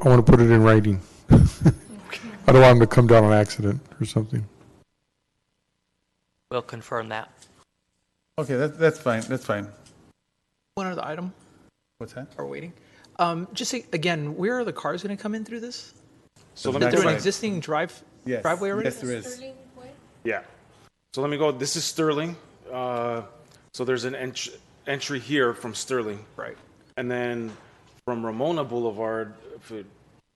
I want to put it in writing. I don't want him to come down on accident or something. We'll confirm that. Okay, that, that's fine, that's fine. One other item, What's that? are waiting. Um, Just say, again, where are the cars going to come in through this? So let Is me Back there go. an side. existing drive, Yes, driveway already? Yes, there is. Yeah. So let me go. This is Sterling. Uh, so there's an ent- entry here from Sterling, Right. and then from Ramona Boulevard. If we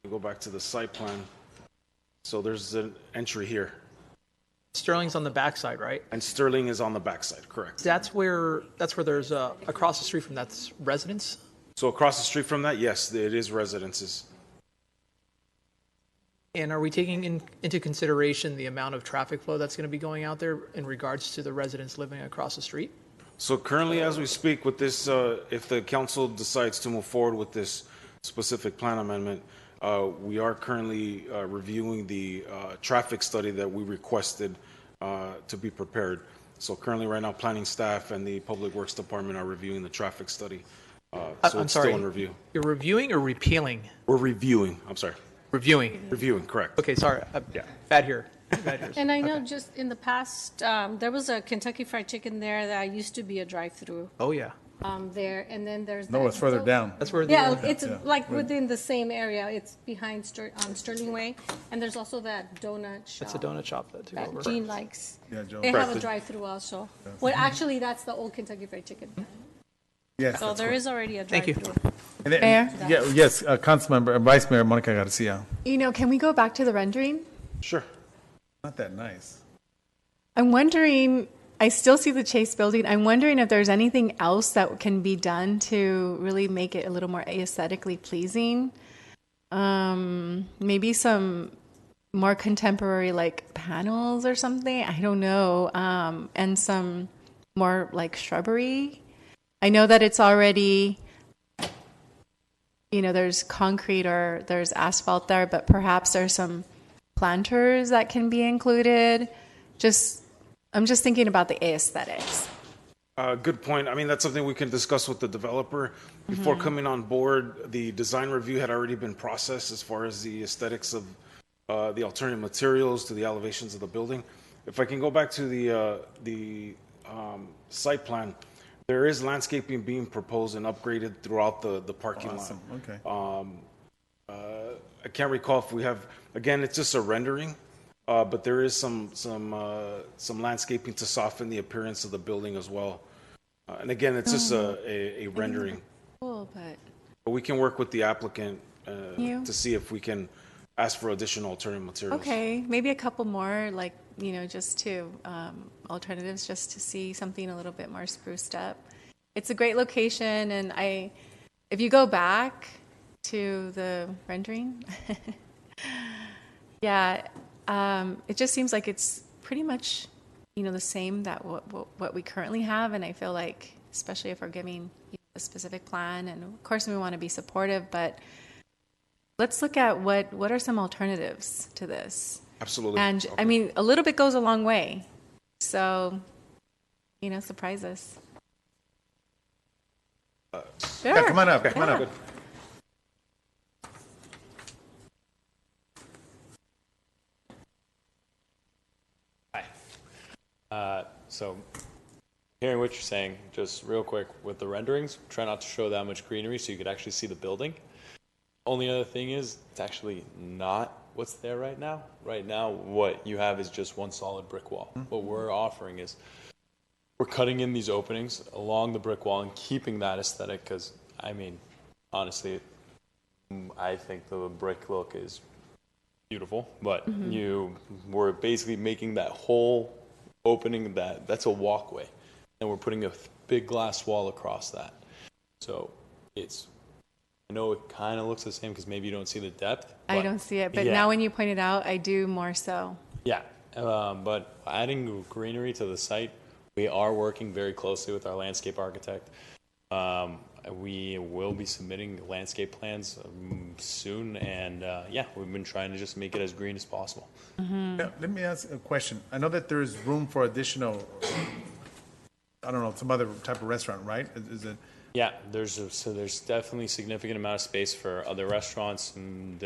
go back to the site plan, so there's an entry here, Sterling's on the backside, right? and Sterling is on the backside. Correct. That's where, that's where there's, uh, across the street from that's residence? So across the street from that, yes, it is residences. And are we taking in- into consideration the amount of traffic flow that's going to be going out there in regards to the residents living across the street? So currently, as we speak with this, uh, if the council decides to move forward with this specific plan amendment, uh, we are currently uh, reviewing the uh, traffic study that we requested uh, to be prepared. So currently, right now, planning staff and the Public Works Department are reviewing the traffic study. Uh, I- So I'm it's still sorry. in review. You're reviewing or repealing? We're reviewing, I'm sorry, Reviewing. reviewing, correct. Okay, sorry. uh, Yeah. Bad here. Bad here. And I know just in the past, um, there was a Kentucky Fried Chicken there that used to be a drive-through Oh, yeah. um, there, and then there's. No, that- it's further so- down. That's where the. Yeah, it's Yeah. like within the same area. It's behind Ster- um, Sterling Way, and there's also that donut shop. That's a donut shop that too. over. That Gene likes. Yeah, Joe. They have a Correct. drive-through also. Well, actually, that's the old Kentucky Fried Chicken. Yes. So that's there cool. is already a Thank you. drive-through. And then- Mayor? Yeah, yes, uh, Councilmember, uh, Vice Mayor Monica Garcia. You know, can we go back to the rendering? Sure. Not that nice. I'm wondering, I still see the Chase building. I'm wondering if there's anything else that can be done to really make it a little more aesthetically pleasing. Um, maybe some more contemporary like panels or something. I don't know. Um, and some more like shrubbery. I know that it's already you know there's concrete or there's asphalt there but perhaps there's some planters that can be included just i'm just thinking about the aesthetics Uh, Good point. I mean, that's something we can discuss with the developer. Before coming on board, the design review had already been processed as far as the aesthetics of uh, the alternative materials to the elevations of the building. If I can go back to the, uh, the um, site plan, there is landscaping being proposed and upgraded throughout the, the parking lot. Awesome, okay. I can't recall if we have, again, it's just a rendering, uh, but there is some, some, uh, some landscaping to soften the appearance of the building as well. Uh, And again, it's just a, Oh. a, a rendering, cool but but we can work with the applicant, uh, You? to see if we can ask for additional alternative materials. okay maybe a couple more like you know just to um, alternatives just to see something a little bit more spruced up it's a great location and i if you go back to the rendering yeah um, it just seems like it's pretty much you know the same that what, what, what we currently have and i feel like especially if we're giving you know, a specific plan and of course we want to be supportive but let's look at what what are some alternatives to this Absolutely. and i mean a little bit goes a long way so you know surprise us sure Uh, Yeah, come on up, come on up. Uh, So, hearing what you're saying, just real quick with the renderings, try not to show that much greenery so you could actually see the building. Only other thing is, it's actually not what's there right now. Right now, what you have is just one solid brick wall. What we're offering is we're cutting in these openings along the brick wall and keeping that aesthetic because, I mean, honestly, mm, I think the brick look is beautiful, but Mm-hmm. you were basically making that whole opening that that's a walkway, and we're putting a th- big glass wall across that. So it's I know it kind of looks the same because maybe you don't see the depth. i but- don't see it but Yeah. now when you point it out i do more so Yeah, um, but adding greenery to the site, we are working very closely with our landscape architect. Um, we will be submitting landscape plans um, soon, and uh, yeah, we've been trying to just make it as green as possible. Yeah, Let me ask a question. I know that there is room for additional, I don't know, some other type of restaurant, right? Is- Is it? Yeah, there's a, so there's definitely significant amount of space for other restaurants and